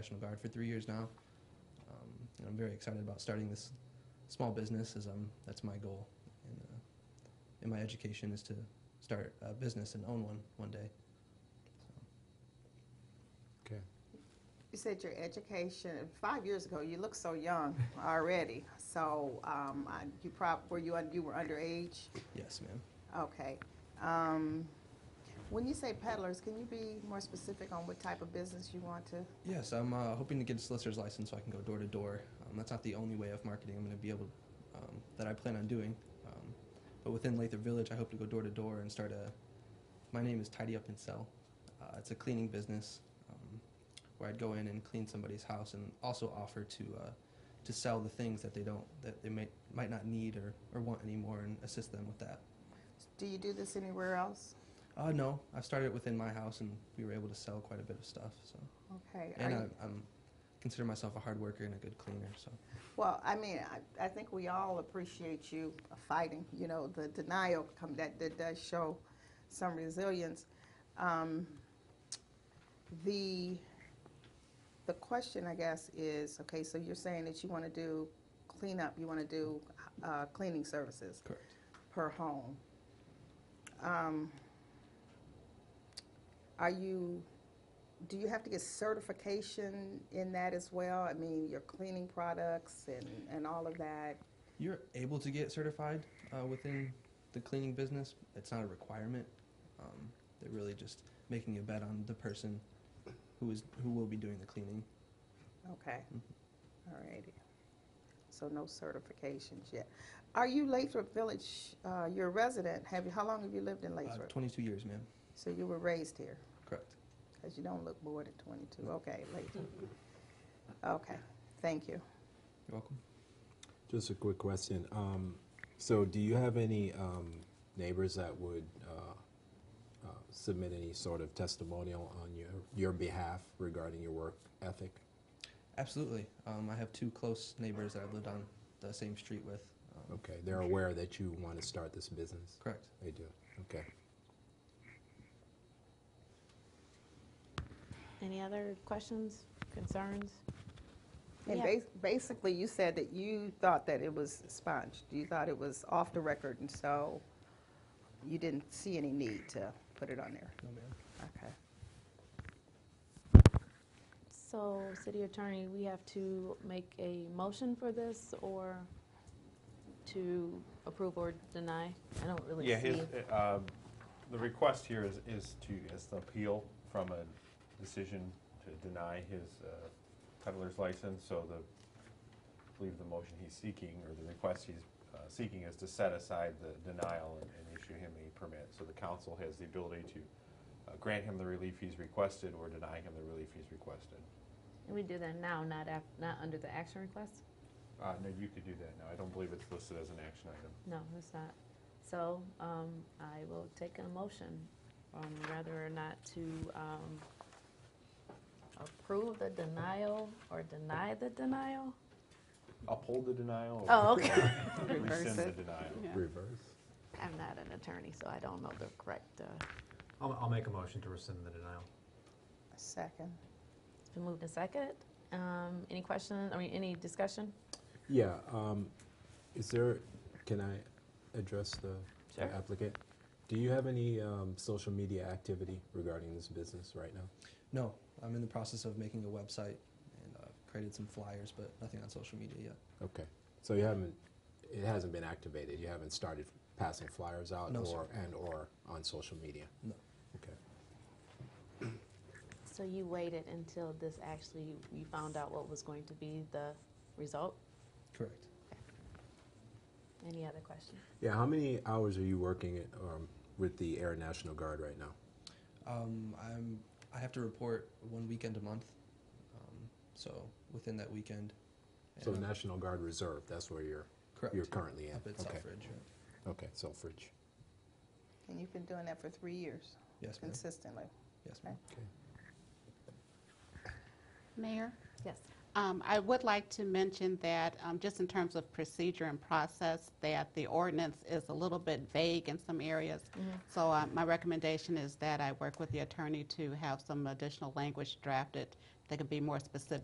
National Guard for three years now. Um, and I'm very excited about starting this small business, as I'm, that's my goal. And, uh, in my education is to start a business and own one one day. Okay. You said your education, five years ago, you look so young already. So um, I- you prob, were you, un- you were underage? Yes, ma'am. Okay. Um, When you say peddlers, can you be more specific on what type of business you want to? Yes, I'm uh, hoping to get a solicitor's license so I can go door to door. Um, That's not the only way of marketing I'm going to be able um, that I plan on doing. Um, but within Lathrop Village, I hope to go door to door and start a. My name is Tidy Up and Sell. Uh, it's a cleaning business um, where I'd go in and clean somebody's house and also offer to uh, to sell the things that they don't that they may, might not need or, or want anymore and assist them with that. Do you do this anywhere else? Uh, no, I started within my house, and we were able to sell quite a bit of stuff. So, Okay. Are and you- I, I'm consider myself a hard worker and a good cleaner. So, Well, I mean, I, I think we all appreciate you fighting. You know, the denial come that, that does show some resilience. Um, the the question, I guess, is okay. So you're saying that you want to do cleanup, you want to do uh, cleaning services correct. per home. Um, are you, do you have to get certification in that as well? I mean, your cleaning products and, and all of that? You're able to get certified uh, within the cleaning business. It's not a requirement. Um, they're really just making a bet on the person who is who will be doing the cleaning. Okay. All righty. So no certifications yet. Are you Lathrop Village, uh, you're a resident? Have you, how long have you lived in Uh, Lathrop? 22 years, ma'am. So you were raised here? Correct. Because you don't look bored at 22. Okay, Lathrop. Okay, thank you. You're welcome. Just a quick question. Um, so, do you have any um, neighbors that would uh, uh, submit any sort of testimonial on your your behalf regarding your work ethic? Absolutely. Um, I have two close neighbors that I've lived on the same street with. Um, Okay, they're aware that you want to start this business. Correct. They do. Okay. Any other questions, concerns? And Yeah. bas- basically, you said that you thought that it was sponged. You thought it was off the record, and so you didn't see any need to put it on there. No, ma'am. Okay. So, city attorney, we have to make a motion for this or to approve or deny? I don't really see. Yeah, his, uh, the request here is, is to, is the appeal from a decision to deny his uh, peddler's license, so the, I believe the motion he's seeking, or the request he's uh, seeking is to set aside the denial and, and issue him a permit, so the council has the ability to uh, grant him the relief he's requested or deny him the relief he's requested. And we do that now, not af, not under the action request? Uh, no, you could do that now, I don't believe it's listed as an action item. No, it's not. So, um, I will take a motion on whether or not to, um, approve the denial or deny the denial? Uphold the denial Oh, or okay. rescind Reverse the it. denial. Reverse. I'm not an attorney, so I don't know the correct, uh, I'll, I'll make a motion to rescind the denial. A second. It's been moved and second. Um, any question, I mean, any discussion? Yeah. Um, is there? Can I address the the Sure. applicant? Do you have any um, social media activity regarding this business right now? No, I'm in the process of making a website and uh, created some flyers, but nothing on social media yet. Okay, so you haven't, it hasn't been activated, you haven't started passing flyers out No, sir. or, and or on social media? No. Okay, So you waited until this actually, you found out what was going to be the result? Correct. Any other questions? yeah, how many hours are you working at, um, with the Air National Guard right now? Um, I'm. I have to report one weekend a month, um, so within that weekend. So and- National Guard Reserve, that's where you're, correct. you're currently at? up at Okay. Selfridge. Okay, Selfridge, And you've been doing that for three years Yes, ma'am. consistently. Yes, ma'am. okay. Mayor, Yes. Um, I would like to mention that, um, just in terms of procedure and process, that the ordinance is a little bit vague in some areas. So uh, my recommendation is that I work with the attorney to have some additional language drafted that could be more specific